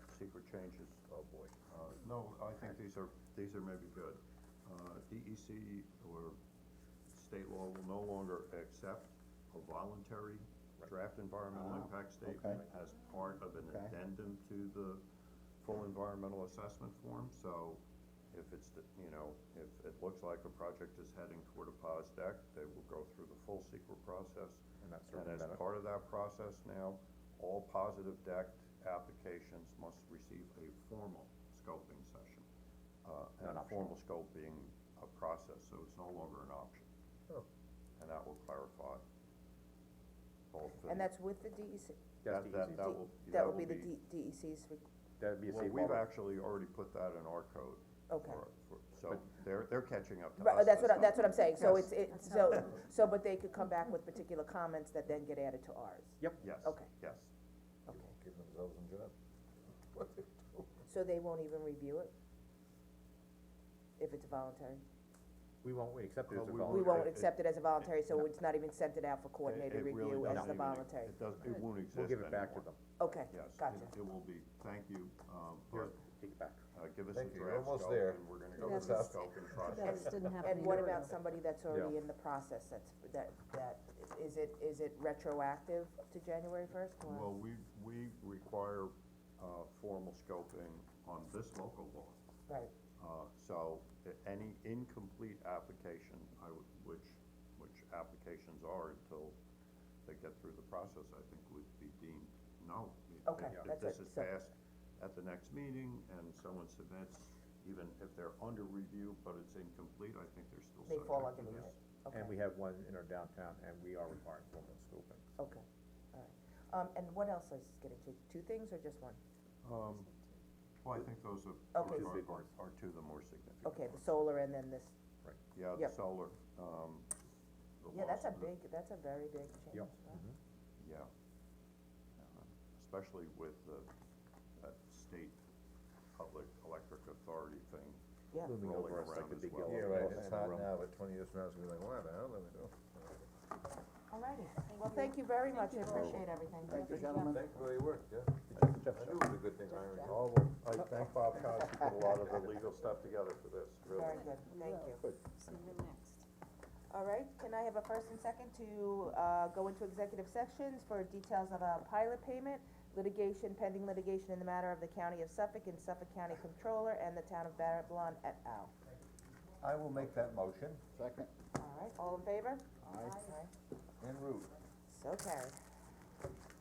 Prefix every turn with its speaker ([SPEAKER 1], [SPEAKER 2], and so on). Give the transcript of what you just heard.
[SPEAKER 1] housekeeper changes, oh boy. Uh, No, I think these are, these are maybe good. Uh, DEC or state law will no longer accept a voluntary draft environmental
[SPEAKER 2] Ah,
[SPEAKER 1] impact statement as part of an
[SPEAKER 2] Okay.
[SPEAKER 1] addendum to the full environmental assessment form, so if it's, the- you know, if it looks like a project is heading toward a POSDEC, they will go through the full secret process.
[SPEAKER 2] And that's
[SPEAKER 1] And as
[SPEAKER 2] circumvent it.
[SPEAKER 1] part of that process now, all positive deck applications must receive a formal scoping session. Uh, and
[SPEAKER 2] Not
[SPEAKER 1] a
[SPEAKER 2] optional.
[SPEAKER 1] formal scope being a process, so it's no longer an option. And that will clarify both things.
[SPEAKER 3] And that's with the E DEC?
[SPEAKER 1] That, that, that will,
[SPEAKER 3] That would be the D- DEC's, re-
[SPEAKER 2] That'd be a
[SPEAKER 1] Well,
[SPEAKER 2] safe
[SPEAKER 1] we've
[SPEAKER 2] harbor.
[SPEAKER 1] actually already put that in our code.
[SPEAKER 3] Okay.
[SPEAKER 1] for- for- So they're, they're catching up to us.
[SPEAKER 3] Right, that's what, I-
[SPEAKER 1] not-
[SPEAKER 3] that's what I'm saying, so
[SPEAKER 1] Yes.
[SPEAKER 3] it's, it's, so, so, but they could come back with particular comments that then get added to ours.
[SPEAKER 1] Yes,
[SPEAKER 3] Okay.
[SPEAKER 1] yes.
[SPEAKER 4] They won't give themselves a job. What they do.
[SPEAKER 3] So they won't even review it? If it's voluntary?
[SPEAKER 2] We won't, we accept it
[SPEAKER 1] Uh,
[SPEAKER 2] as
[SPEAKER 1] we
[SPEAKER 2] a
[SPEAKER 3] We
[SPEAKER 2] voluntary.
[SPEAKER 3] won't
[SPEAKER 1] it-
[SPEAKER 3] accept it as a voluntary, so it's not even sent it out for
[SPEAKER 1] It-
[SPEAKER 3] coordinated
[SPEAKER 1] it really
[SPEAKER 3] review as
[SPEAKER 1] doesn't
[SPEAKER 3] the
[SPEAKER 1] even-
[SPEAKER 3] voluntary.
[SPEAKER 1] It does, it won't exist
[SPEAKER 2] We'll give it back to
[SPEAKER 1] anymore.
[SPEAKER 2] them.
[SPEAKER 3] Okay,
[SPEAKER 1] Yes,
[SPEAKER 3] gotcha.
[SPEAKER 1] it, it will be, thank you, um,
[SPEAKER 2] Here,
[SPEAKER 1] but,
[SPEAKER 2] Take it back.
[SPEAKER 1] uh, give us a
[SPEAKER 4] Thank you, you're
[SPEAKER 1] draft
[SPEAKER 4] almost
[SPEAKER 1] scope,
[SPEAKER 4] there.
[SPEAKER 1] and we're gonna go
[SPEAKER 4] That's
[SPEAKER 1] with the
[SPEAKER 4] us.
[SPEAKER 1] scope and
[SPEAKER 5] That
[SPEAKER 1] process.
[SPEAKER 5] just didn't happen.
[SPEAKER 3] And
[SPEAKER 5] a
[SPEAKER 3] what
[SPEAKER 5] year
[SPEAKER 3] about
[SPEAKER 5] ago.
[SPEAKER 3] somebody that's already in the process, that's, that, that, is it, is it retroactive to January first?
[SPEAKER 1] Well, we, we require, uh, formal scoping on this local law,
[SPEAKER 3] Right,
[SPEAKER 1] uh, so, i- any incomplete application, I would, which, which applications are until they get through the process, I think would be deemed null. If-
[SPEAKER 3] Okay,
[SPEAKER 1] if-
[SPEAKER 3] that's
[SPEAKER 1] If
[SPEAKER 3] it,
[SPEAKER 1] this is
[SPEAKER 3] so-
[SPEAKER 1] passed at the next meeting, and someone submits, even if they're under review, but it's incomplete, I think they're still
[SPEAKER 3] they
[SPEAKER 1] subject to this.
[SPEAKER 3] fall under the, okay.
[SPEAKER 2] And we have one in our downtown, and we are requiring formal scoping.
[SPEAKER 3] Okay, all right. Um, and what else is getting to, two things or just one?
[SPEAKER 1] Um, well, I think those are,
[SPEAKER 3] Okay.
[SPEAKER 1] are,
[SPEAKER 2] Two big
[SPEAKER 1] are,
[SPEAKER 2] ones.
[SPEAKER 1] are two of the more significant.
[SPEAKER 3] Okay, the
[SPEAKER 1] ones.
[SPEAKER 3] solar and then this,
[SPEAKER 1] Yeah, the
[SPEAKER 3] Yep.
[SPEAKER 1] solar, um, the
[SPEAKER 3] yeah, that's a
[SPEAKER 1] laws-
[SPEAKER 3] big, that's a very big change,
[SPEAKER 2] Yep.
[SPEAKER 4] Mm-hmm.
[SPEAKER 2] Mm-hmm.
[SPEAKER 3] right?
[SPEAKER 1] Yeah. Um, Especially with the, that state public electric authority thing.
[SPEAKER 3] Yeah.
[SPEAKER 2] Looming
[SPEAKER 1] Rolling
[SPEAKER 2] over us like
[SPEAKER 1] around
[SPEAKER 2] a
[SPEAKER 1] as
[SPEAKER 2] big
[SPEAKER 1] well.
[SPEAKER 2] yellow.
[SPEAKER 4] Yeah, right,
[SPEAKER 2] bus
[SPEAKER 4] it's
[SPEAKER 2] in the
[SPEAKER 4] hot
[SPEAKER 2] room.
[SPEAKER 4] now, but twenty years from now, it's gonna be like, why the hell did we do?
[SPEAKER 3] All righty, well, thank you very much, I appreciate everything. Thank you, gentlemen.
[SPEAKER 4] Thank you for your work, yeah. I knew it was a good thing, hiring you.
[SPEAKER 1] All of, I thank Bob Cosby for a lot of the legal stuff together for this,
[SPEAKER 3] Very good, thank you.
[SPEAKER 5] So you're next.
[SPEAKER 3] All right, can I have a first and second to, uh, go into executive sections for details of a pilot payment, litigation, pending litigation in the matter of the county of Suffolk and Suffolk County Controller and the town of Babylon et al.
[SPEAKER 4] I will make that motion. Second.
[SPEAKER 3] All right, all in favor? Aye.
[SPEAKER 4] En route.
[SPEAKER 3] So carried.